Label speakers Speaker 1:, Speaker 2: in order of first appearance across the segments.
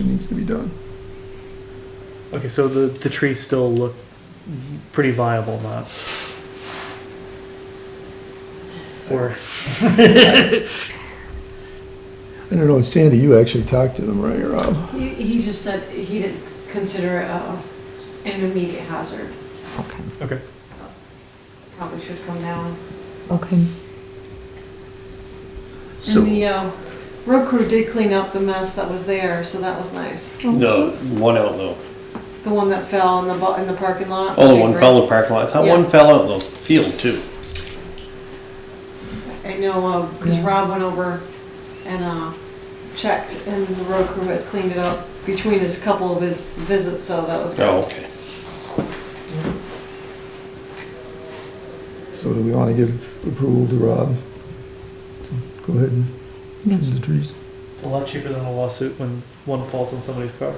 Speaker 1: that needs to be done.
Speaker 2: Okay, so the, the trees still look pretty viable, not? Or,
Speaker 1: I don't know, and Sandy, you actually talked to them, right, Rob?
Speaker 3: He, he just said he didn't consider it uh, an immediate hazard.
Speaker 4: Okay,
Speaker 2: okay,
Speaker 3: Probably should come down.
Speaker 4: okay.
Speaker 5: So
Speaker 3: And the uh, road crew did clean up the mess that was there, so that was nice.
Speaker 5: the
Speaker 3: Mm-hmm.
Speaker 5: one out though.
Speaker 3: The one that fell in the, bu- in the parking lot.
Speaker 5: Oh, the
Speaker 3: big
Speaker 5: one
Speaker 3: brick.
Speaker 5: fell in the parking lot. I thought one
Speaker 3: Yeah. Oh,
Speaker 5: fell out in the field too.
Speaker 3: I know, because
Speaker 4: Yeah.
Speaker 3: Rob went over and uh, checked, and the road crew had cleaned it up between his couple of his visits, so that was
Speaker 5: Oh,
Speaker 3: good.
Speaker 5: okay.
Speaker 1: So do we want to give approval to Rob? to Go ahead and fix the trees.
Speaker 2: it's a lot cheaper than a lawsuit when one falls on somebody's car.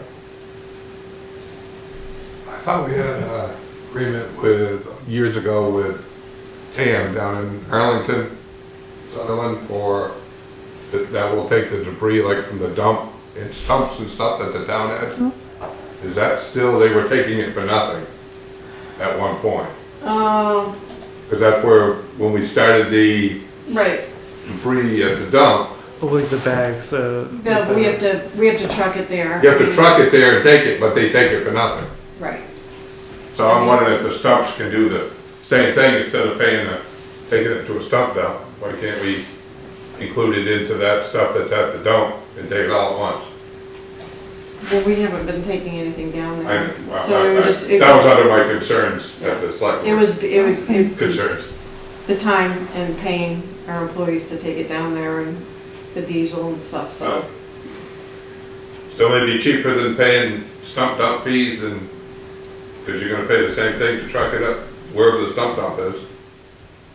Speaker 6: I thought we had an agreement with, years ago with TAM down in Arlington, Sunderland, for, that that will take the debris like from the dump and stumps and stuff that the town had. Is that still, they were taking it for nothing at one point?
Speaker 3: Um,
Speaker 6: Because that's where, when we started the
Speaker 3: right,
Speaker 6: debris at the dump,
Speaker 2: Oh, like the bags, uh.
Speaker 3: but we have to, we have to truck it there.
Speaker 6: you have to truck it there and take it, but they take it for nothing.
Speaker 3: Right.
Speaker 6: So I'm wondering if the stumps can do the same thing instead of paying the, taking it to a stump dump. Why can't we include it into that stuff that's at the dump and take it all at once?
Speaker 3: Well, we haven't been taking anything down
Speaker 6: I-
Speaker 3: there.
Speaker 6: I-
Speaker 3: So it was
Speaker 6: I-
Speaker 3: just, it
Speaker 6: That was under my concerns at the select.
Speaker 3: it was, it was, it-
Speaker 6: Concerns.
Speaker 3: the time and paying our employees to take it down there and the diesel and stuff, so.
Speaker 6: So Still it'd be cheaper than paying stump dump fees and, because you're gonna pay the same thing to truck it up wherever the stump dump is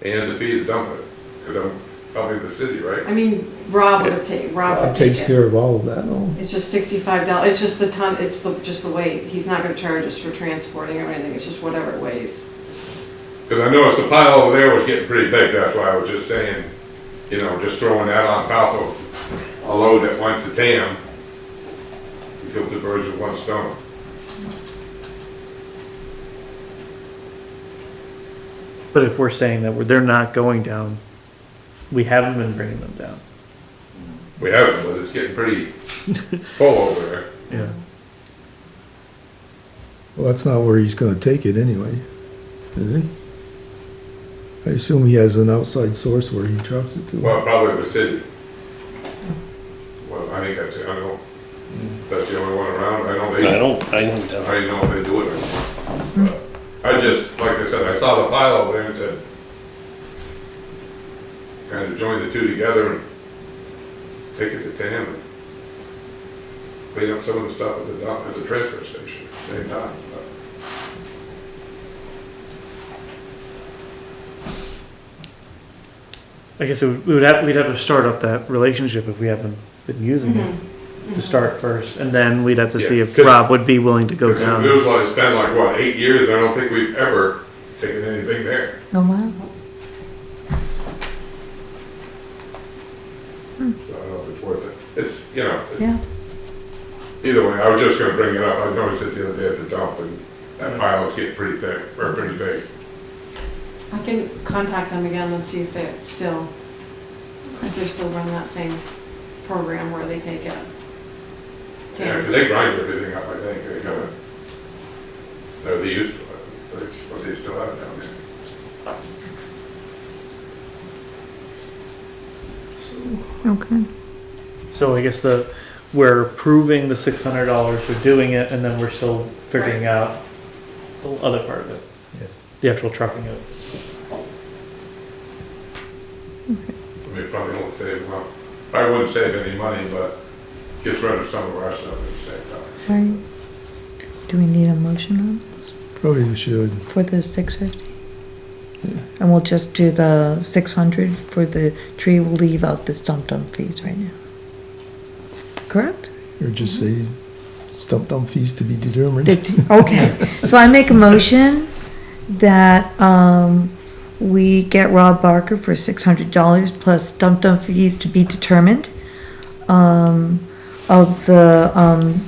Speaker 6: and the fee to dump it. Because I'm probably the city, right?
Speaker 3: I mean, Rob would have taken, Rob
Speaker 1: Rob
Speaker 3: would take
Speaker 1: takes
Speaker 3: it.
Speaker 1: care of all of that, all.
Speaker 3: It's just sixty-five dollars, it's just the ton, it's the, just the weight. He's not gonna charge us for transporting or anything, it's just whatever it weighs.
Speaker 6: Because I noticed the pile over there was getting pretty big, that's why I was just saying, you know, just throwing that on top of a load that went to TAM. You Killed the birds with one stone.
Speaker 2: But if we're saying that we're, they're not going down, we haven't been bringing them down.
Speaker 6: We haven't, but it's getting pretty full over there.
Speaker 2: Yeah.
Speaker 1: Well, that's not where he's gonna take it anyway, is he? I assume he has an outside source where he trucks it to.
Speaker 6: Well, probably the city. Well, I think that's, it. I know, that's the only one around, I know
Speaker 5: I
Speaker 6: they.
Speaker 5: don't, I don't know.
Speaker 6: I know they do it. But I just, like I said, I saw the pile over there and said, kind of join the two together and take it to Tam and clean up some of the stuff at the dump, at the transfer station at the same time. But
Speaker 2: I guess it would, we would have, we'd have to start up that relationship if we haven't been using it,
Speaker 3: Mm-hmm.
Speaker 2: to start first, and then we'd have to see
Speaker 6: Yeah,
Speaker 2: if
Speaker 6: 'cause-
Speaker 2: Rob would be willing to go down.
Speaker 6: It was like, it's been like, what, eight years, and I don't think we've ever taken anything there.
Speaker 4: Oh, wow.
Speaker 6: So I don't know if it's worth it. It's, you know, it-
Speaker 4: Yeah.
Speaker 6: either way, I was just gonna bring it up. I noticed it the other day at the dump and that pile was getting pretty thick, or pretty big.
Speaker 3: I can contact them again and see if they are still, if they're still running that same program where they take it.
Speaker 6: Yeah, because they grind everything up, I think, they kind of, they're the useful, that's what they still have down there.
Speaker 4: Okay.
Speaker 2: So I guess the, we're approving the six hundred dollars, we're doing it, and then we're still figuring out the other part of it.
Speaker 1: Yes.
Speaker 2: The actual trucking of it.
Speaker 6: I mean, probably won't save, well, I wouldn't save any money, but gets rid of some of our stuff at the same time.
Speaker 4: Right. Do we need a motion on this
Speaker 1: Probably we should.
Speaker 4: for the six fifty? And we'll just do the six hundred for the tree, we'll leave out the stump dump fees right now. Correct?
Speaker 1: Or just say stump dump fees to be determined.
Speaker 4: Did- Okay, so I make a motion that, um, we get Rob Barker for six hundred dollars plus stump dump fees to be determined, um, of the, um,